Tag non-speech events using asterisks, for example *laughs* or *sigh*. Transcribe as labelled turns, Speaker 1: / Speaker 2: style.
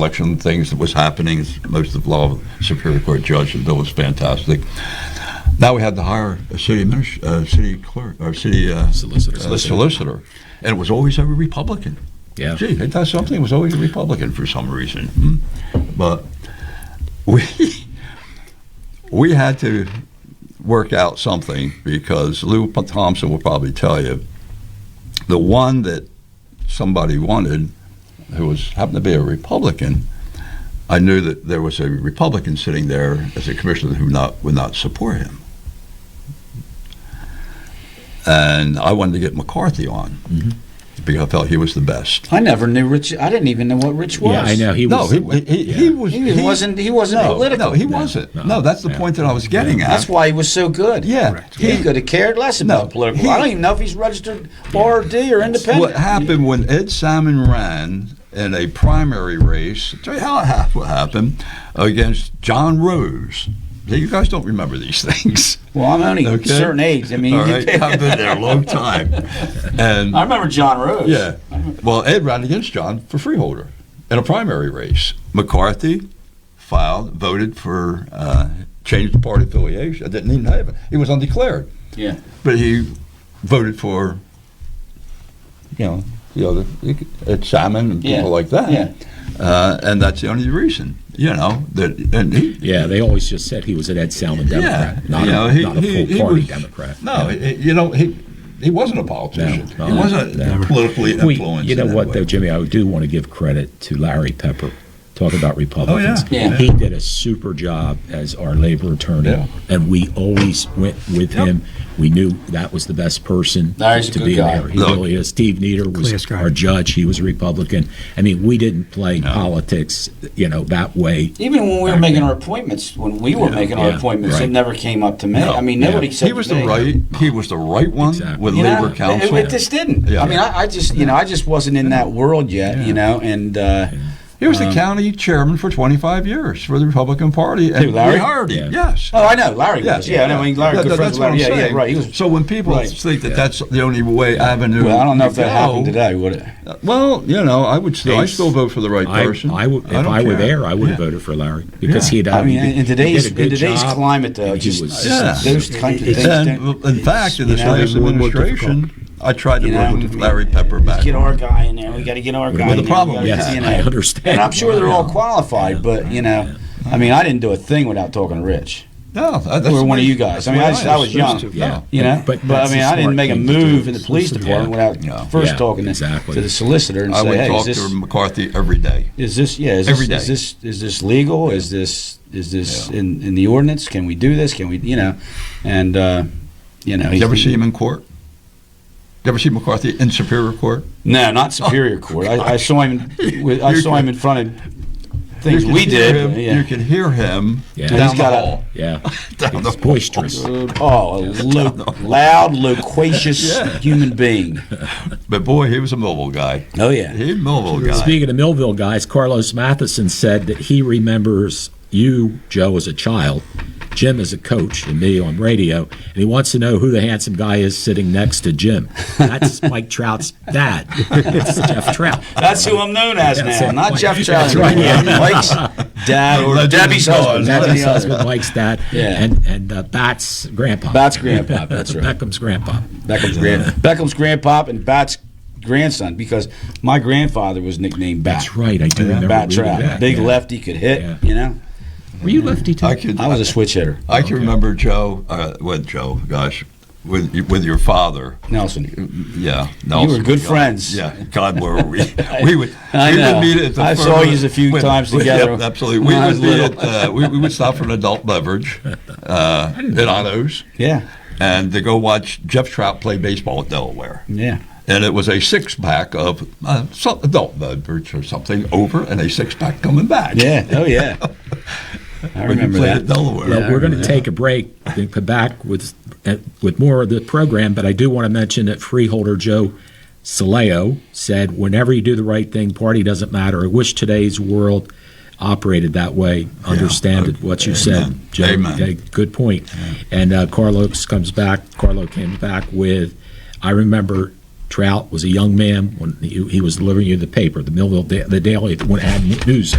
Speaker 1: election things that was happening. Most of the law Superior Court judge and Bill was fantastic. Now we had to hire a city adminis- uh, city clerk or city uh,
Speaker 2: Solicitor.
Speaker 1: uh, solicitor, and it was always a Republican.
Speaker 2: Yeah.
Speaker 1: Gee, ain't that something? It was always a Republican for some reason. Hmm. But *laughs* we we had to work out something because Lou Thompson will probably tell you the one that somebody wanted, who was happened to be a Republican. I knew that there was a Republican sitting there as a commissioner who not would not support him. And I wanted to get McCarthy on because I felt he was the best.
Speaker 3: I never knew Rich. I didn't even know what Rich was.
Speaker 2: Yeah, I know. He
Speaker 1: No,
Speaker 2: was.
Speaker 1: he, he,
Speaker 2: yeah.
Speaker 1: he was.
Speaker 3: He wasn't- he wasn't
Speaker 1: no,
Speaker 3: political.
Speaker 1: No, he wasn't. No,
Speaker 2: no,
Speaker 1: that's the
Speaker 2: yeah.
Speaker 1: point that I was getting at.
Speaker 3: That's why he was so good.
Speaker 1: Yeah,
Speaker 2: Correct.
Speaker 3: He
Speaker 1: he-
Speaker 3: could have cared less about
Speaker 1: No,
Speaker 3: political.
Speaker 1: he-
Speaker 3: I don't even know if he's registered RD or independent.
Speaker 1: What happened when Ed Salmon ran in a primary race? Tell you how it hap- what happened against John Rose. Now, You guys don't remember these *laughs* things.
Speaker 3: Well, I'm only
Speaker 1: Okay.
Speaker 3: a certain age. I mean,
Speaker 1: All
Speaker 3: *laughs*
Speaker 1: right, I've been there a long time, and
Speaker 3: I remember John Rose.
Speaker 1: Yeah.
Speaker 2: Mm-hmm.
Speaker 1: Well, Ed ran against John for freeholder in a primary race. McCarthy filed, voted for, uh, changed the party affiliation. I didn't even have it. He was undeclared.
Speaker 3: Yeah.
Speaker 1: But he voted for, you know, the other, Ed Salmon and people
Speaker 3: Yeah.
Speaker 1: like that.
Speaker 3: Yeah.
Speaker 1: Uh, and that's the only reason, you know, that, and he,
Speaker 2: yeah, they always just said he was an Ed Salmon
Speaker 1: Yeah,
Speaker 2: Democrat, not,
Speaker 1: you know,
Speaker 2: a,
Speaker 1: he-
Speaker 2: not a
Speaker 1: he-
Speaker 2: full
Speaker 1: he
Speaker 2: party
Speaker 1: was-
Speaker 2: Democrat.
Speaker 1: no, he- he- you know, he, he wasn't a politician.
Speaker 2: No,
Speaker 1: he
Speaker 2: no,
Speaker 1: wasn't
Speaker 2: never.
Speaker 1: politically
Speaker 2: We-
Speaker 1: influenced.
Speaker 2: you
Speaker 1: in
Speaker 2: know
Speaker 1: that
Speaker 2: what,
Speaker 1: way.
Speaker 2: though, Jimmy, I do want to give credit to Larry Pepper. Talk about Republicans.
Speaker 1: Oh,
Speaker 3: Yeah.
Speaker 2: He did a super job as our labor attorney,
Speaker 1: Yeah.
Speaker 2: and we always went with
Speaker 1: Yep.
Speaker 2: him. We knew that was the best person
Speaker 3: Larry's a
Speaker 2: to
Speaker 3: good
Speaker 2: be
Speaker 3: guy.
Speaker 2: there. He
Speaker 1: No.
Speaker 2: really is. Steve Nieder
Speaker 4: Class
Speaker 2: was
Speaker 4: guy.
Speaker 2: our judge. He was a Republican. I mean, we didn't play politics, you know, that way.
Speaker 3: Even when we were making our appointments, when we were making our
Speaker 2: yeah,
Speaker 3: appointments, it
Speaker 2: right.
Speaker 3: never came up to me.
Speaker 1: No,
Speaker 3: I mean,
Speaker 2: yeah.
Speaker 3: nobody said
Speaker 1: He was
Speaker 3: to
Speaker 1: the
Speaker 3: me,
Speaker 1: right. He was the right one
Speaker 2: Exactly.
Speaker 1: with
Speaker 3: you know,
Speaker 1: labor
Speaker 3: it-
Speaker 1: council.
Speaker 3: It, just didn't.
Speaker 1: Yeah.
Speaker 3: I mean, I, I just, you know, I just wasn't in that world yet, you know, and uh,
Speaker 1: he
Speaker 2: Um,
Speaker 1: was the county chairman for 25 years for the Republican Party, and
Speaker 3: Who, Larry?
Speaker 1: we hired him.
Speaker 2: Yeah.
Speaker 1: Yes.
Speaker 3: oh, I know Larry
Speaker 1: Yeah.
Speaker 3: was. Yeah, I know. I mean, Larry,
Speaker 1: That-
Speaker 3: good
Speaker 1: that- that's
Speaker 3: friends with
Speaker 1: what I'm
Speaker 3: Larry. Yeah,
Speaker 1: saying.
Speaker 3: yeah, right. He was.
Speaker 1: so when people
Speaker 3: right.
Speaker 1: think that that's the only way avenue,
Speaker 3: well, I don't know if
Speaker 1: to
Speaker 3: that happened
Speaker 1: go-
Speaker 3: today. Would it?
Speaker 1: Well, you know, I would still, I
Speaker 2: It's-
Speaker 1: still vote for the right
Speaker 2: I,
Speaker 1: person.
Speaker 2: I would, if
Speaker 1: don't
Speaker 2: I were
Speaker 1: care.
Speaker 2: there, I would have
Speaker 1: Yeah.
Speaker 2: voted for Larry because
Speaker 1: Yeah.
Speaker 2: he'd.
Speaker 3: I mean,
Speaker 2: he
Speaker 3: in
Speaker 2: did-
Speaker 3: today's
Speaker 2: he
Speaker 3: in
Speaker 2: did a good
Speaker 3: today's
Speaker 2: job,
Speaker 3: climate, though,
Speaker 2: and he
Speaker 3: just
Speaker 2: was-
Speaker 1: Yeah.
Speaker 3: those kinds of
Speaker 4: It's-
Speaker 3: things. don't-
Speaker 1: And in fact, in this
Speaker 3: You know,
Speaker 1: last
Speaker 4: it's more difficult.
Speaker 1: administration, I tried to
Speaker 3: You
Speaker 1: work
Speaker 3: know,
Speaker 1: with Larry Pepper back.
Speaker 3: Get our guy in there. We got to get our guy.
Speaker 2: Well, the
Speaker 3: in there.
Speaker 1: problem
Speaker 3: We gotta
Speaker 1: is-
Speaker 3: get, you
Speaker 2: *laughs*
Speaker 3: know.
Speaker 2: I understand.
Speaker 3: And I'm sure they're all
Speaker 2: Yeah.
Speaker 3: qualified, but you know, I mean, I didn't do a thing without talking to Rich.
Speaker 1: No, that- that's the
Speaker 3: Or one
Speaker 1: way-
Speaker 3: of you guys. I
Speaker 1: that's
Speaker 3: mean,
Speaker 1: the
Speaker 3: I
Speaker 1: way
Speaker 3: just- I was
Speaker 1: used
Speaker 3: young.
Speaker 1: to.
Speaker 2: Yeah.
Speaker 3: You know, but,
Speaker 2: But
Speaker 3: I
Speaker 2: that's
Speaker 3: mean,
Speaker 2: the
Speaker 3: I didn't
Speaker 2: smart
Speaker 3: make a
Speaker 2: thing to
Speaker 3: move
Speaker 2: do.
Speaker 3: in the police
Speaker 2: Solicitor,
Speaker 3: department
Speaker 2: yeah.
Speaker 3: without
Speaker 1: Yeah.
Speaker 3: first
Speaker 2: Yeah,
Speaker 3: talking to,
Speaker 2: exactly.
Speaker 3: to the solicitor and
Speaker 1: I
Speaker 3: say,
Speaker 1: would
Speaker 3: "Hey, is
Speaker 1: talk
Speaker 3: this
Speaker 1: to McCarthy every day.
Speaker 3: is this yeah is
Speaker 1: every
Speaker 3: this, is
Speaker 1: day.
Speaker 3: this is this legal? Is this is this
Speaker 1: Yeah.
Speaker 3: in, in the ordinance? Can we do this? Can we you know?" And uh, you know,
Speaker 1: Did
Speaker 3: he's-
Speaker 1: you ever see him in court? You ever see McCarthy in Superior Court?
Speaker 3: No, not
Speaker 1: *laughs* Oh,
Speaker 3: Superior Court. I, I saw him. with- I
Speaker 1: You
Speaker 3: saw him in front of things
Speaker 1: You could
Speaker 3: we
Speaker 1: hear
Speaker 3: did.
Speaker 1: Him, You
Speaker 3: yeah.
Speaker 1: could hear him
Speaker 2: Yeah.
Speaker 1: down
Speaker 2: He's
Speaker 1: the
Speaker 3: got a-
Speaker 1: hall. *laughs*
Speaker 2: Yeah,
Speaker 1: Down the
Speaker 2: it's boisterous.
Speaker 3: Oh, a lo- loud,
Speaker 1: *laughs*
Speaker 3: loquacious
Speaker 1: Yeah.
Speaker 3: human being.
Speaker 1: But boy, he was a mobile guy.
Speaker 3: Oh yeah.
Speaker 1: He a mobile guy.
Speaker 2: Speaking of Millville guys, Carlos Matheson said that he remembers you, Joe, as a child, Jim as a coach, and me on radio, and he wants to know who the handsome guy is sitting next to Jim.
Speaker 3: *laughs*
Speaker 2: That's Mike Trout's dad. That's Jeff Trout.
Speaker 3: That's who I'm known as
Speaker 2: That's
Speaker 3: now,
Speaker 2: it.
Speaker 3: not Jeff
Speaker 2: That's
Speaker 3: Chowder.
Speaker 2: right, yeah.
Speaker 3: Mike's
Speaker 1: *laughs*
Speaker 3: dad or
Speaker 1: Legend
Speaker 3: Debbie's
Speaker 1: Dog.
Speaker 3: husband.
Speaker 2: That's
Speaker 3: one or the
Speaker 2: his
Speaker 3: other. *laughs*
Speaker 2: husband, Mike's dad,
Speaker 3: Yeah.
Speaker 2: and and uh, Bat's grandpa.
Speaker 3: Bat's grandpa,
Speaker 2: *laughs*
Speaker 3: that's right.
Speaker 2: Beckham's grandpa.
Speaker 3: Beckham's grand, Beckham's grandpop and Bat's grandson because my grandfather was nicknamed Bat.
Speaker 2: That's right. I do remember
Speaker 3: Bat
Speaker 2: reading
Speaker 3: Trout,
Speaker 2: that,
Speaker 3: big
Speaker 2: yeah.
Speaker 3: lefty could hit.
Speaker 2: Yeah.
Speaker 3: You know,
Speaker 2: Were you lefty too?
Speaker 1: I could.
Speaker 3: I was a switch hitter.
Speaker 1: I can remember Joe. Uh, with Joe, gosh, with with your father.
Speaker 3: Nelson,
Speaker 1: *laughs* Yeah, Nelson.
Speaker 3: were good
Speaker 1: God-
Speaker 3: friends.
Speaker 1: Yeah, God,
Speaker 3: *laughs*
Speaker 1: were we? We would.
Speaker 3: I
Speaker 1: we
Speaker 3: know.
Speaker 1: would meet at the.
Speaker 3: I
Speaker 1: firm-
Speaker 3: saw yous a few
Speaker 1: with-
Speaker 3: times
Speaker 1: with-
Speaker 3: together
Speaker 1: Yep, absolutely.
Speaker 3: when
Speaker 1: We *laughs*
Speaker 3: I was
Speaker 1: would meet
Speaker 3: little.
Speaker 1: at. Uh, we, we would stop for an adult beverage uh, at Otto's,
Speaker 3: yeah,
Speaker 1: and to go watch Jeff Trout play baseball at Delaware.
Speaker 3: yeah.
Speaker 1: and it was a six pack of uh, some adult beverage or something over, and a six pack coming back.
Speaker 3: Yeah. Oh yeah.
Speaker 1: when you
Speaker 3: I remember
Speaker 1: played at
Speaker 3: that.
Speaker 1: Delaware.
Speaker 2: Well, we're going to take a break and come back with uh, with more of the program, but I do want to mention that freeholder Joe Saleo said, "Whenever you do the right thing, party doesn't matter." I wish today's world operated that way. Understand it, what you said,
Speaker 1: Amen.
Speaker 2: Joe.
Speaker 1: Amen.
Speaker 2: Okay, good point. And uh, Carlos comes back. Carlo came back with, "I remember." Trout was a young man when he, he was delivering you the paper, the Millville, Da- the Daily, when it had news